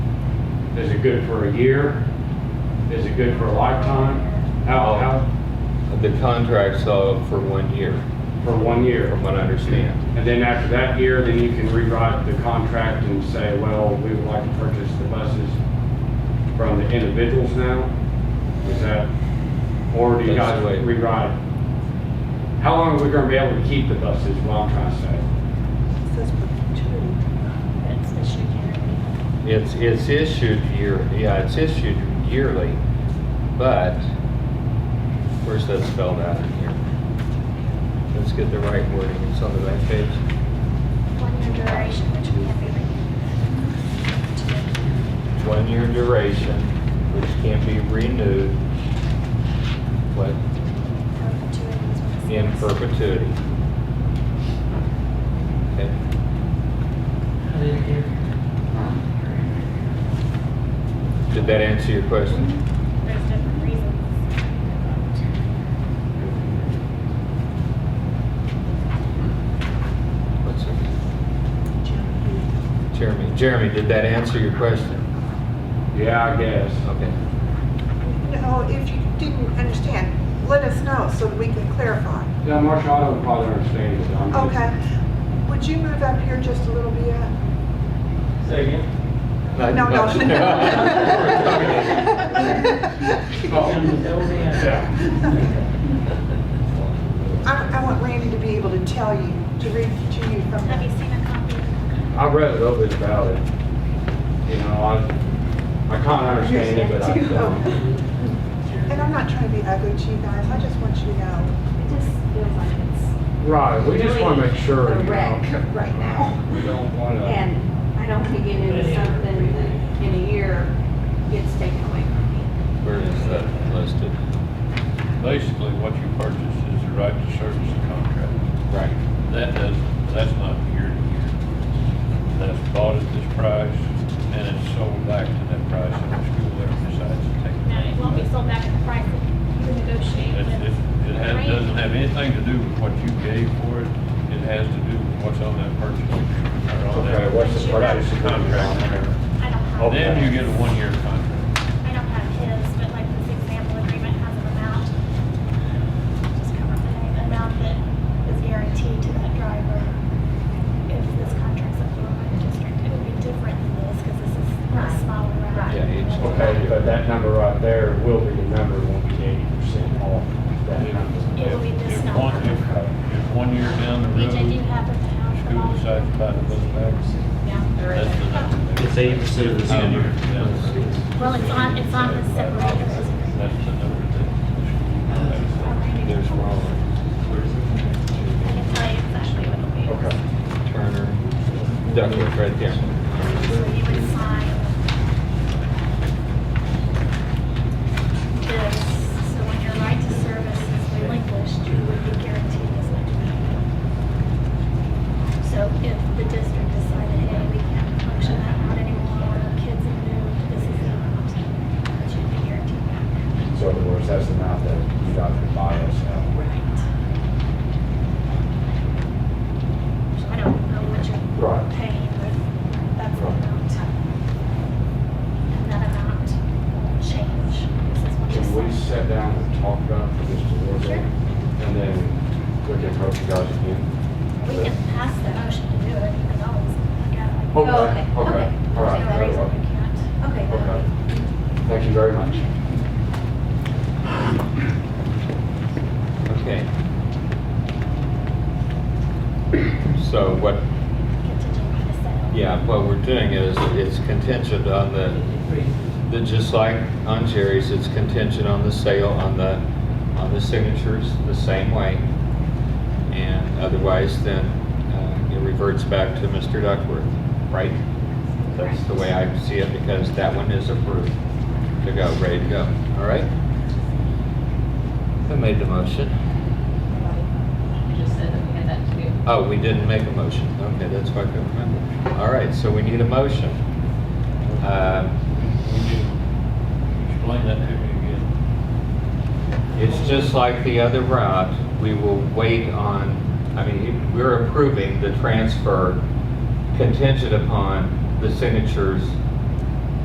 Is it good for a year? Is it good for a lifetime? How, how, The contract's uh, for one year, for one year? from what I understand. And then after that year, then you can rewrite the contract and say, well, we would like to purchase the buses from the individuals now? Is that, or do you That's guys the way- rewrite? it? How long are we gonna be able to keep the buses, is what I'm trying to say? Says for two. That's issued yearly. It's, it's issued year, yeah, it's issued yearly, but, where's that spelled out in here? Let's get the right wording, it's on the back page. One year duration, which we have One-year duration, which can every. be renewed, what, Perpetuity is what it in says. perpetuity. Okay. Did that answer your question? There's different reasons. What's her? Jeremy. Jeremy, did that answer your question? Yeah, I guess. Okay. No, if you didn't understand, let us know so we can clarify. Yeah, Marshall, I don't probably understand it. I'm just- Okay. Would you move up here just a little bit? Say again? No, No, no. Oh, yeah. I, I want Randy to be able to tell you, to read to you from Have you the. seen a copy? I read a little bit about it. You know, I, I can't understand it, but I don't. And I'm not trying to be ugly to you guys, I just want you to know. It just feels like it's Right, we just wanna make sure, a you wreck know. right now. We don't wanna, And I don't want to get into something that in a year gets taken away from me. Where is that listed? Basically, what you purchase is the right to service the contract. Right. That does, that's not year to year. That's bought at this price, and it's sold back to that price if the school ever decides to take it. No, it won't be sold back at the price that you negotiate It's- with. It, it has, doesn't have anything to do with what you gave for it. It has to do with what's on that purchase. agreement, or on that Okay, what's the purchase I Contract. don't have. Okay. Then you get a one-year contract. I don't have his, but like this example agreement has an amount. Just cover the amount that is guaranteed to that driver. If this contract's approved by the district, it would be different than this because this is a smaller route. Yeah, it's- okay, but that number right there will be the number, won't be eighty percent off that number. It will be this If number. one, if, if one year down the road, Which I do have with the house. school decides to buy the bus back, that's the number. It's eighty percent of the Um, Ten senior. years down the road. Well, it's on, it's on the separators. That's the number that the school pays. There's Roland, I can tell you exactly what it'll be. Okay. Turner, Duckworth, right there. So you would sign this, so when your right to service is relinquished, you would be guaranteed this much benefit. So if the district decided, hey, we can't function that route anymore, the kids have moved, this is the amount that you'd be guaranteed back. So in other words, that's the amount that you got to buy us now. Right. So I don't know what you're Right. paying, but that's the amount. And that amount will change. This is what Can we you said. sit down and talk about this towards Sure. And then we can approach you guys again? We can pass the motion to do it, because I was, I got like. Okay, okay. All right, There's no very reason well. we can't. Okay. Okay. Thank you very much. Okay. So what, Contingent on the sale. yeah, what we're doing is, it's contingent on the, the, just like on Jerry's, it's contingent on the sale, on the, on the signatures, the same way. And otherwise, then, uh, it reverts back to Mr. Duckworth, right? That's the way I see it, because that one is approved to go, ready to go, all right? Who made the motion? You just said that we had that to do. Oh, we didn't make a motion, okay, that's what I couldn't remember. All right, so we need a motion. Uh, Would you Explain that to me again. It's just like the other route, we will wait on, I mean, we're approving the transfer contingent upon the signatures